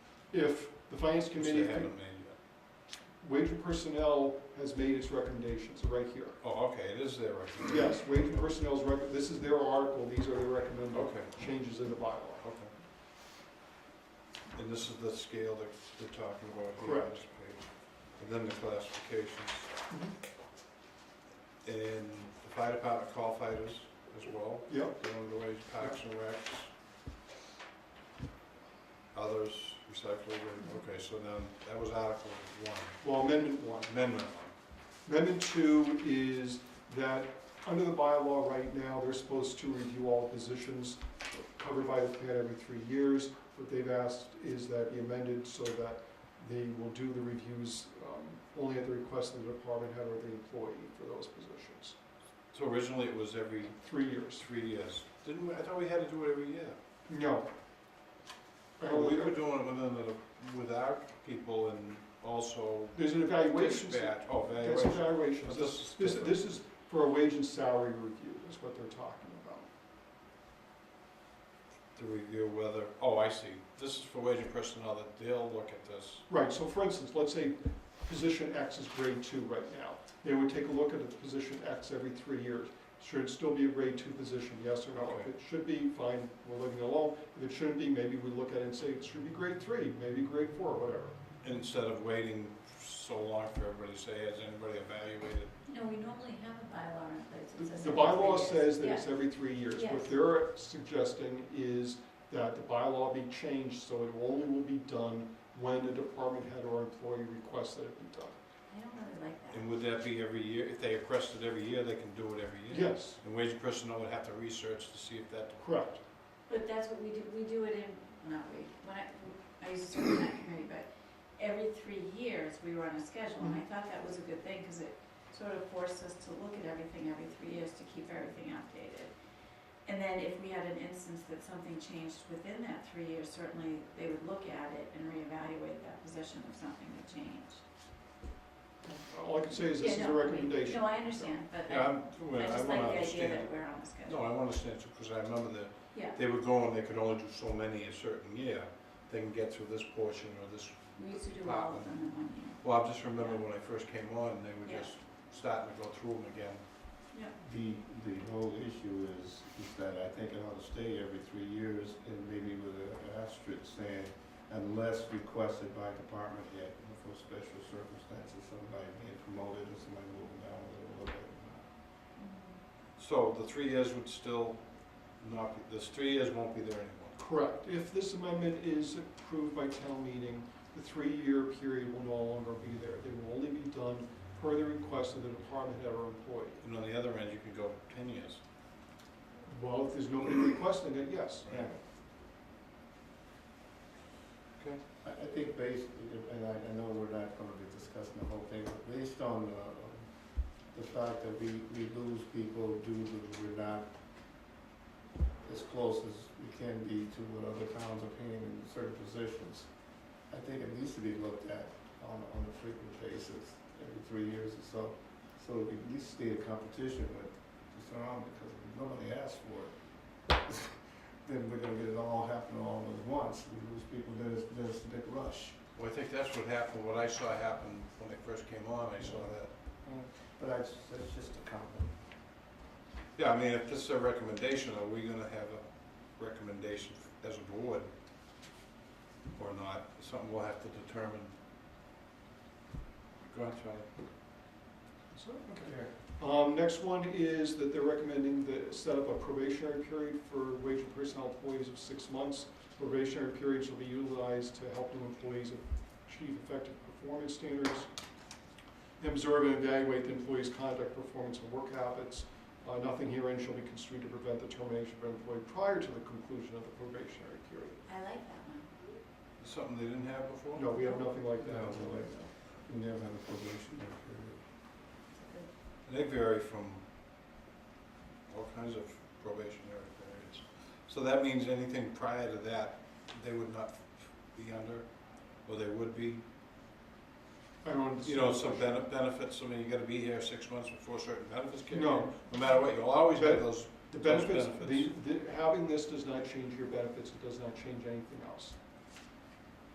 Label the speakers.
Speaker 1: if the finance committee,
Speaker 2: They haven't made yet.
Speaker 1: wage and personnel has made its recommendations, right here.
Speaker 2: Oh, okay, it is there, right?
Speaker 1: Yes, wage and personnel's rec, this is their article, these are the recommended
Speaker 2: Okay,
Speaker 1: changes in the bylaw.
Speaker 2: okay. And this is the scale that they're talking about here on
Speaker 1: Correct.
Speaker 2: this page. And then the classifications. Mm-hmm. And the fire department call fighters as well,
Speaker 1: Yep,
Speaker 2: going the ways, parks and recs. Others, recycling, and- okay, so then, that was Article One,
Speaker 1: well, amendment one.
Speaker 2: Amendment One.
Speaker 1: Amendment two is that, under the bylaw right now, they're supposed to review all positions covered by the plan every three years. What they've asked is that be amended so that they will do the reviews um, only at the request of the department head or the employee for those positions.
Speaker 2: So originally, it was every
Speaker 1: Three years.
Speaker 2: three years. Didn't we, I thought we had to do it every year.
Speaker 1: No.
Speaker 2: Well, we were doing it within the, with our people and also
Speaker 1: There's an evaluation.
Speaker 2: dispatch, oh,
Speaker 1: That's
Speaker 2: evaluation.
Speaker 1: evaluations.
Speaker 2: But this is
Speaker 1: This,
Speaker 2: different.
Speaker 1: this is for a wage and salary review, is what they're talking about.
Speaker 2: To review whether, oh, I see, this is for wage and personnel, that they'll look at this.
Speaker 1: Right, so for instance, let's say position X is grade two right now. They would take a look at the position X every three years. Should it still be a grade two position, yes or no? If
Speaker 2: Okay.
Speaker 1: it should be, fine, we're leaving it alone. If it shouldn't be, maybe we look at it and say it should be grade three, maybe grade four, whatever.
Speaker 2: Instead of waiting so long for everybody to say, has anybody evaluated?
Speaker 3: No, we normally have a bylaw in place that says.
Speaker 1: The- The
Speaker 3: every three
Speaker 1: bylaw
Speaker 3: years.
Speaker 1: says that
Speaker 3: Yeah.
Speaker 1: it's every three years. What
Speaker 3: Yes.
Speaker 1: they're suggesting is that the bylaw be changed so it only will be done when a department head or employee requests that it be done.
Speaker 3: I don't really like that.
Speaker 2: And would that be every year, if they request it every year, they can do it every year?
Speaker 1: Yes,
Speaker 2: And wage and personnel would have to research to see if that,
Speaker 1: correct.
Speaker 3: But that's what we do, we do it in, not we, when I, I used to serve in that committee, but every three years, we were on a schedule, and I thought that was a good thing, because it sort of forced us to look at everything every three years to keep everything updated. And then if we had an instance that something changed within that three years, certainly they would look at it and reevaluate that position if something had changed.
Speaker 1: All I can say is this is a
Speaker 3: Yeah, no, I mean,
Speaker 1: recommendation.
Speaker 3: No, I understand, but I-
Speaker 2: yeah, I'm,
Speaker 3: I
Speaker 2: I wanna
Speaker 3: just like the idea
Speaker 2: understand.
Speaker 3: that we're on the schedule.
Speaker 2: No, I wanna understand too, because I remember that
Speaker 3: Yeah,
Speaker 2: they would go and they could only do so many a certain year. They can get through this portion or this
Speaker 3: we used to do all of them in one year.
Speaker 2: Well, I just remember when I first came on, they were
Speaker 3: Yeah.
Speaker 2: just starting to go through them again.
Speaker 4: The, the whole issue is, is that I think it ought to stay every three years and maybe with a- an asterisk saying, unless requested by department head for special circumstances, somebody being promoted or somebody moving down a little bit.
Speaker 3: Mm-hmm.
Speaker 2: So the three years would still not, be this three years won't be there anymore.
Speaker 1: Correct. If this amendment is approved by town meeting, the three-year period will no longer be there. They will only be done per the request of the department head or employee.
Speaker 2: And on the other end, you can go ten years.
Speaker 1: Well, if there's nobody requesting it, yes.
Speaker 2: Right.
Speaker 4: I, I think based, and I, I know we're not gonna be discussing the whole thing, but based on the, the fact that we, we lose people due to we're not as close as we can be to what other towns are paying in certain positions, I think it needs to be looked at on, on a frequent basis, every three years or so, so that we at least stay in competition with the surrounding, because if nobody asks for it, then we're gonna get it all happening all at once, we lose people, then it's, then it's a big rush.
Speaker 2: Well, I think that's what happened, what I saw happen when I first came on, I saw that.
Speaker 4: But I, just- that's just a comment.
Speaker 2: Yeah, I mean, if this is a recommendation, are we gonna have a recommendation as a board or not? Something we'll have to determine. Go ahead, Charlie.
Speaker 1: So, okay. Um, next one is that they're recommending the set up a probationary period for wage and personnel employees of six months. Probationary period shall be utilized to help new employees achieve effective performance standards. Observe and evaluate the employee's conduct, performance, and work habits. Uh, nothing herein shall be construed to prevent the termination of an employee prior to the conclusion of the probationary period.
Speaker 3: I like that one.
Speaker 2: Something they didn't have before?
Speaker 1: No, we have nothing like that.
Speaker 4: No, we like We never had a probationary period.
Speaker 2: And They vary from all kinds of probationary periods. So that means anything prior to that, they would not be under, or they would be?
Speaker 1: I don't understand.
Speaker 2: You know, some bene- benefits, I mean, you gotta be here six months before certain benefits kick in.
Speaker 1: No.
Speaker 2: No matter what, you'll always get those,
Speaker 1: The
Speaker 2: Those
Speaker 1: benefits, the,
Speaker 2: benefits.
Speaker 1: the, having this does not change your benefits, it does not change anything else.